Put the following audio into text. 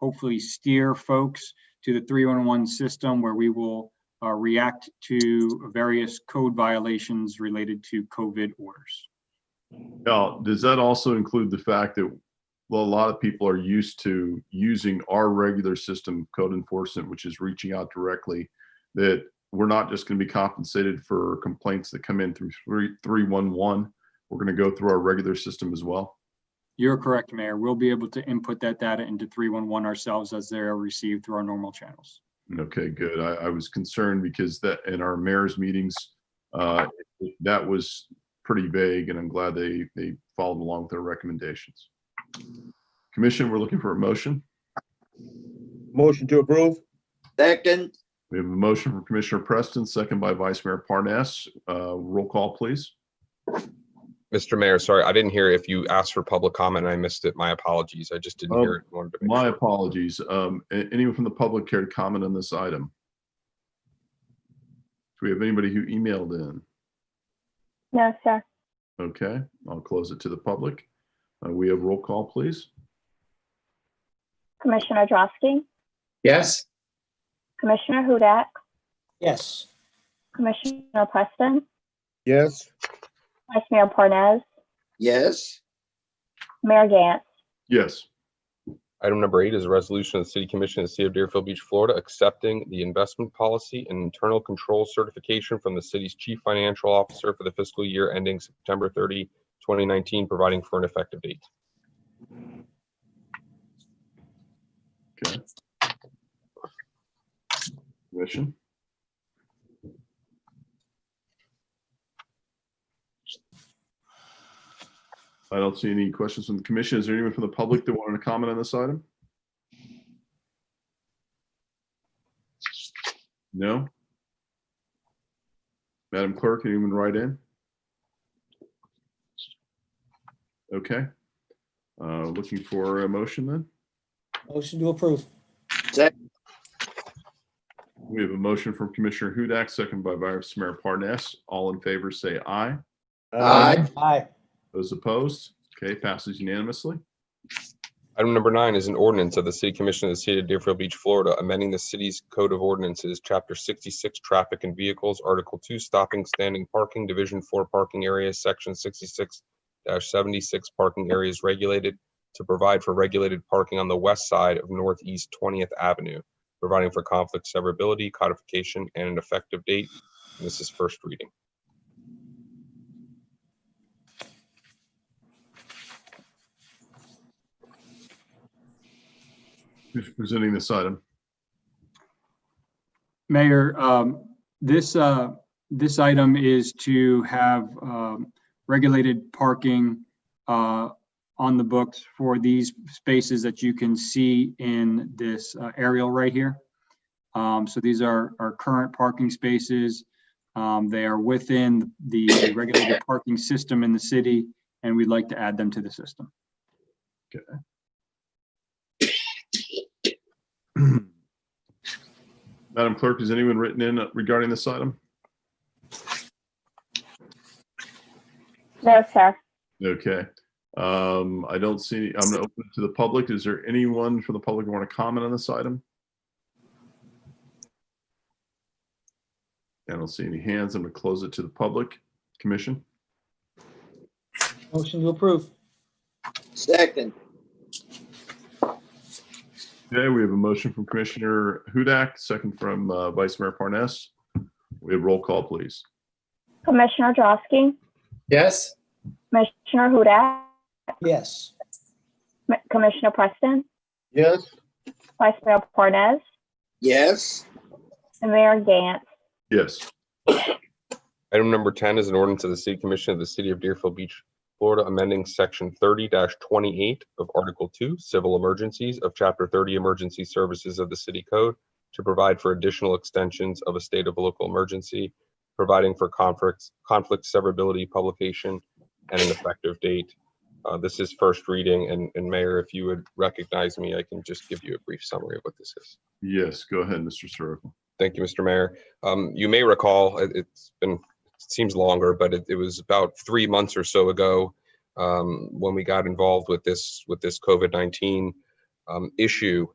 hopefully steer folks to the 311 system where we will uh, react to various code violations related to COVID orders. Now, does that also include the fact that a lot of people are used to using our regular system code enforcement, which is reaching out directly? That we're not just going to be compensated for complaints that come in through three, three, one, one. We're going to go through our regular system as well. You're correct, Mayor. We'll be able to input that data into 311 ourselves as they are received through our normal channels. Okay, good. I, I was concerned because that in our mayor's meetings, uh, that was pretty vague and I'm glad they, they followed along with their recommendations. Commission, we're looking for a motion. Motion to approve? Second, We have a motion from Commissioner Preston, second by Vice Mayor Parnas. Uh, Roll call, please. Mr. Mayor, sorry, I didn't hear if you asked for public comment. and I missed it. My apologies. I just didn't Oh, hear it. Wanted to make My sure. apologies. Um, a- Anyone from the public care to comment on this item? Do we have anybody who emailed in? No, sir. Okay, I'll close it to the public. Uh, We have roll call, please. Commissioner Drosky, yes, Commissioner Hudak, yes, Commissioner Preston, Yes. Vice Mayor Parnas, yes, Mayor Gantz. Yes. Item number eight is a resolution of the City Commission of the City of Deerfield Beach, Florida, accepting the investment policy and internal control certification from the city's chief financial officer for the fiscal year ending September 30, 2019, providing for an effective date. Commission? I don't see any questions from the commission. Is there anyone from the public that wanted to comment on this item? No? Madam Clerk, anyone write in? Okay. Uh, Looking for a motion then? motion to approve, We have a motion from Commissioner Hudak, second by Vice Mayor Parnas. All in favor, say aye. aye, aye, Those opposed? Okay, passes unanimously. Item number nine is an ordinance of the City Commission of the City of Deerfield Beach, Florida, amending the city's Code of Ordinances, Chapter 66, Traffic and Vehicles, Article 2, Stopping, Standing, Parking, Division 4, Parking Areas, Section 66-76, Parking Areas Regulated, to provide for regulated parking on the west side of Northeast 20th Avenue, providing for conflict severability, codification, and an effective date. And This is first reading. Who's presenting this item? Mayor, um, this, uh, this item is to have, um, regulated parking, uh, on the books for these spaces that you can see in this uh, aerial right here. Um, so these are our current parking spaces. Um, they are within the regulated parking system in the city, and we'd like to add them to the system. Madam Clerk, is anyone written in regarding this item? No, sir. Okay. Um, I don't see, I'm going to open it to the public. Is there anyone from the public who want to comment on this item? I don't see any hands. I'm going to close it to the public. Commission? motion to approve, second, Okay, we have a motion from Commissioner Hudak, second from uh, Vice Mayor Parnas. We have roll call, please. Commissioner Drosky, yes, Commissioner Hudak, yes, M- Commissioner Preston, Yes. Vice Mayor Parnas, yes, and Mayor Gantz. Yes. Item number 10 is an ordinance of the City Commission of the City of Deerfield Beach, Florida, amending Section 30-28 of Article 2, Civil Emergencies of Chapter 30 Emergency Services of the City Code to provide for additional extensions of a state of local emergency, providing for conflicts, conflict severability, publication, and an effective date. Uh, This is first reading, and and Mayor, if you would recognize me, I can just give you a brief summary of what this is. Yes, go ahead, Mr. Soroka. Thank you, Mr. Mayor. Um, you may recall, it, has been, it seems longer, but it, it was about three months or so ago um, when we got involved with this, with this COVID-19 um, issue.